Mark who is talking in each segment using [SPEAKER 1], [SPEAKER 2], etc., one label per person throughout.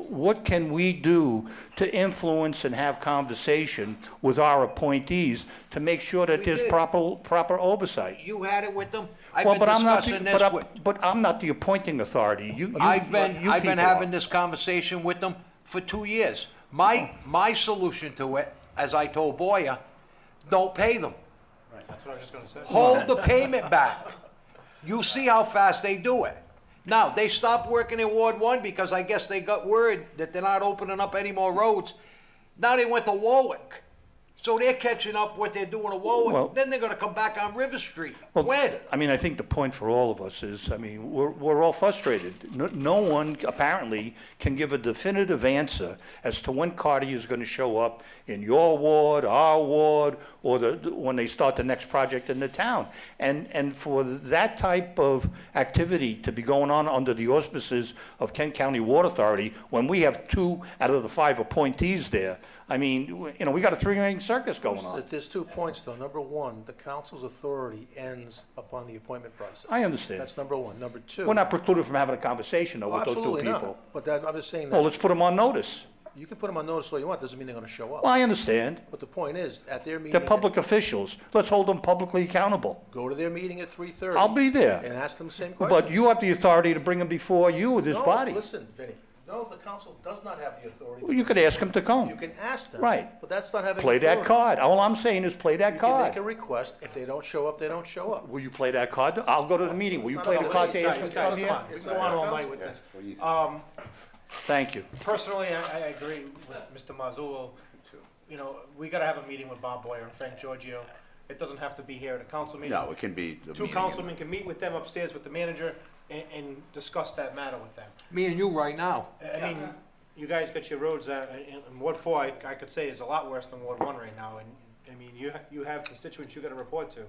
[SPEAKER 1] what can we do to influence and have conversation with our appointees to make sure that
[SPEAKER 2] We
[SPEAKER 1] there's
[SPEAKER 2] did.
[SPEAKER 1] proper, proper oversight?
[SPEAKER 2] You had it with them? I've
[SPEAKER 1] Well,
[SPEAKER 2] been
[SPEAKER 1] but I'm not, the-
[SPEAKER 2] discussing
[SPEAKER 1] but
[SPEAKER 2] this with,
[SPEAKER 1] I'm, but I'm not the appointing authority. You, you-
[SPEAKER 2] I've been,
[SPEAKER 1] you
[SPEAKER 2] I've been
[SPEAKER 1] people are.
[SPEAKER 2] having this conversation with them for two years. My, my solution to it, as I told Boyer, don't pay them.
[SPEAKER 3] Right, that's what I was just gonna say.
[SPEAKER 2] Hold the payment back. You see how fast they do it. Now, they stopped working in Ward One because I guess they got word that they're not opening up any more roads. Now they went to Warwick. So they're catching up what they're doing to
[SPEAKER 1] Well-
[SPEAKER 2] Warwick. Then they're gonna come back on River Street.
[SPEAKER 1] Well,
[SPEAKER 2] When?
[SPEAKER 1] I mean, I think the point for all of us is, I mean, we're, we're all frustrated. No, no one apparently can give a definitive answer as to when Carty is gonna show up in your ward, our ward, or the, when they start the next project in the town. And, and for that type of activity to be going on under the auspices of Kent County Water Authority, when we have two out of the five appointees there, I mean, you know, we got a three-ring circus going on.
[SPEAKER 4] That There's two points, though. Number one, the council's authority ends upon the appointment process.
[SPEAKER 1] I understand.
[SPEAKER 4] That's number one. Number 2
[SPEAKER 1] We're not precluded from having a conversation though
[SPEAKER 4] Oh,
[SPEAKER 1] with those two
[SPEAKER 4] absolutely not.
[SPEAKER 1] people.
[SPEAKER 4] But that, I'm just saying
[SPEAKER 1] Well,
[SPEAKER 4] that,
[SPEAKER 1] let's put them on notice.
[SPEAKER 4] you can put them on notice all you want, doesn't mean they're gonna show
[SPEAKER 1] Well,
[SPEAKER 4] up.
[SPEAKER 1] I understand.
[SPEAKER 4] But the point is, at their meeting.
[SPEAKER 1] They're public officials. Let's hold them publicly accountable.
[SPEAKER 4] Go to their meeting at three thirty.
[SPEAKER 1] I'll be
[SPEAKER 4] And
[SPEAKER 1] there.
[SPEAKER 4] ask them the same question.
[SPEAKER 1] But you have the authority to bring them before you, this body.
[SPEAKER 4] No, listen, Vinny, no, the council does not have the authority.
[SPEAKER 1] You could ask them to
[SPEAKER 4] You
[SPEAKER 1] come.
[SPEAKER 4] can ask them.
[SPEAKER 1] Right.
[SPEAKER 4] But that's not having.
[SPEAKER 1] Play that
[SPEAKER 4] authority.
[SPEAKER 1] card. All I'm saying is play that
[SPEAKER 4] You can make a
[SPEAKER 1] card.
[SPEAKER 4] request. If they don't show up, they don't show up.
[SPEAKER 1] Will you play that card? I'll go to the meeting. Will you play the card to ask them to come
[SPEAKER 3] Guys, come
[SPEAKER 1] here?
[SPEAKER 3] on, we go on all night with this. Um,
[SPEAKER 1] Thank you.
[SPEAKER 3] personally, I, I agree with Mr. Mazzullo. You know, we gotta have a meeting with Bob Boyer and Frank Giorgio. It doesn't have to be here at a council meeting.
[SPEAKER 5] No, it can be. a
[SPEAKER 3] Two
[SPEAKER 5] meeting.
[SPEAKER 3] councilmen can meet with them upstairs with the manager and, and discuss that matter with them.
[SPEAKER 2] Me and you right now.
[SPEAKER 3] I mean, you guys got your roads, uh, in, in Ward four, I, I could say is a lot worse than Ward one right now, and, I mean, you, ha- you have constituents you gotta report to.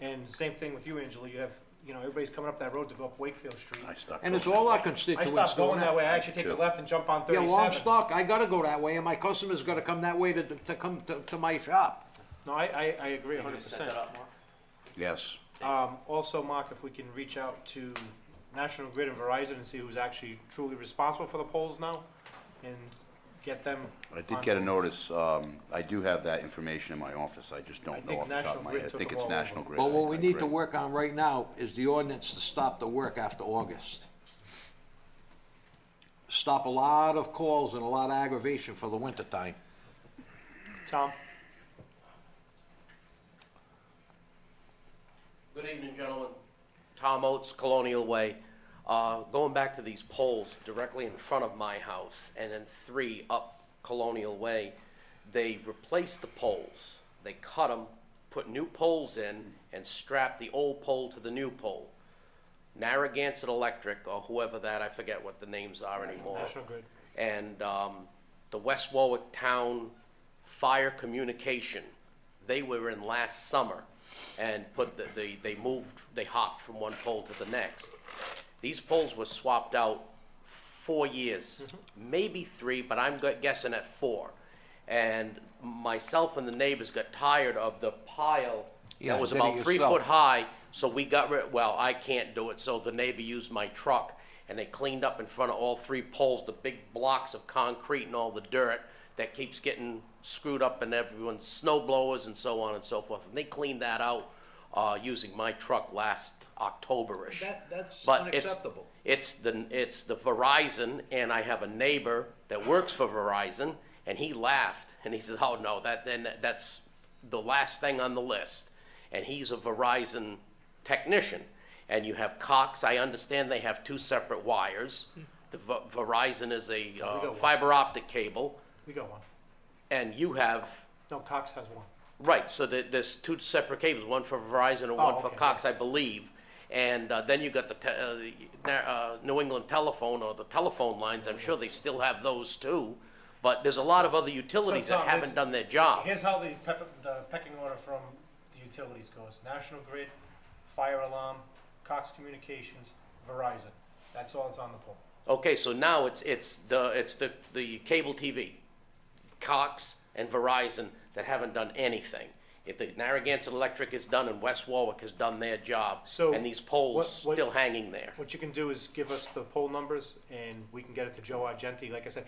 [SPEAKER 3] And same thing with you, Angela, you have, you know, everybody's coming up that road to go up Wakefield Street.
[SPEAKER 5] I stopped.
[SPEAKER 2] And it's
[SPEAKER 5] going.
[SPEAKER 2] all our
[SPEAKER 3] I
[SPEAKER 2] constituents
[SPEAKER 3] stopped
[SPEAKER 2] doing
[SPEAKER 3] going that way, I actually take the
[SPEAKER 5] Too.
[SPEAKER 3] left and jump on
[SPEAKER 2] Yeah,
[SPEAKER 3] thirty-seven.
[SPEAKER 2] well, I'm stuck. I gotta go that way and my customer's gotta come that way to, to come to, to my shop.
[SPEAKER 3] No, I, I, I agree a hundred percent.
[SPEAKER 5] Yes,
[SPEAKER 3] Um, also, Mark, if we can reach out to National Grid and Verizon and see who's actually truly responsible for the poles now, and get them.
[SPEAKER 5] I did
[SPEAKER 3] on
[SPEAKER 5] get a
[SPEAKER 3] board.
[SPEAKER 5] notice, um, I do have that information in my office, I just
[SPEAKER 3] I
[SPEAKER 5] don't know
[SPEAKER 3] think
[SPEAKER 5] off the top
[SPEAKER 3] National
[SPEAKER 5] of my
[SPEAKER 3] Grid
[SPEAKER 5] head. I
[SPEAKER 3] took
[SPEAKER 5] think
[SPEAKER 3] them
[SPEAKER 5] it's
[SPEAKER 3] all over.
[SPEAKER 5] National Grid.
[SPEAKER 2] But what
[SPEAKER 5] I-
[SPEAKER 2] we
[SPEAKER 5] I
[SPEAKER 2] need to
[SPEAKER 5] agree.
[SPEAKER 2] work on right now is the ordinance to stop the work after August. Stop a lot of calls and a lot of aggravation for the wintertime.
[SPEAKER 3] Tom,
[SPEAKER 6] Good evening, gentlemen. Tom Oates, Colonial Way. Uh, Going back to these poles directly in front of my house, and then three up Colonial Way, they replaced the poles. They cut them, put new poles in, and strapped the old pole to the new pole. Narragansett Electric, or whoever that, I forget what the names are anymore.
[SPEAKER 3] National Grid.
[SPEAKER 6] And um, the West Warwick Town Fire Communication, they were in last summer and put the, they, they moved, they hopped from one pole to the next. These poles were swapped out four years,
[SPEAKER 2] Mm-hmm.
[SPEAKER 6] maybe three, but I'm gu- guessing at four. And myself and the neighbors got tired of the pile
[SPEAKER 2] Yeah,
[SPEAKER 6] that was
[SPEAKER 2] did it
[SPEAKER 6] about three foot
[SPEAKER 2] yourself.
[SPEAKER 6] high high, so we got rid, well, I can't do it, so the neighbor used my truck, and they cleaned up in front of all three poles, the big blocks of concrete and all the dirt that keeps getting screwed up in everyone's snow blowers and so on and so forth, and they cleaned that out, uh, using my truck last October-ish.
[SPEAKER 2] That- that's
[SPEAKER 6] But it's-
[SPEAKER 2] unacceptable.
[SPEAKER 6] It's the, it's the Verizon, and I have a neighbor that works for Verizon, and he laughed, and he says, oh, no, that, then, that's the last thing on the list. And he's a Verizon technician. And you have Cox, I understand they have two separate wires. The Ve- Verizon is a
[SPEAKER 3] got
[SPEAKER 6] uh,
[SPEAKER 3] one.
[SPEAKER 6] fiber optic cable,
[SPEAKER 3] we got one.
[SPEAKER 6] and you have,
[SPEAKER 3] No, Cox has one.
[SPEAKER 6] right, so there, there's two separate cables, one for Verizon and
[SPEAKER 3] Oh,
[SPEAKER 6] one for
[SPEAKER 3] okay,
[SPEAKER 6] Cox, I believe. And uh, then you got the, te- uh, the, Na- uh, New England telephone or the telephone lines, I'm sure they still have those too. But there's a lot of other utilities
[SPEAKER 3] Tom,
[SPEAKER 6] that
[SPEAKER 3] listen,
[SPEAKER 6] haven't done their job.
[SPEAKER 3] Here's how the, pep- the pecking order from the utilities goes. National Grid, Fire Alarm, Cox Communications, Verizon. That's all that's on the pole.
[SPEAKER 6] Okay, so now it's, it's the, it's the, the cable TV, Cox and Verizon that haven't done anything. If the Narragansett Electric is done and West Warwick has done their job,
[SPEAKER 3] So,
[SPEAKER 6] and these
[SPEAKER 3] what-
[SPEAKER 6] poles
[SPEAKER 3] what-
[SPEAKER 6] still hanging there.
[SPEAKER 3] What you can do is give us the poll numbers and we can get it to Joe Argenti. Like I said,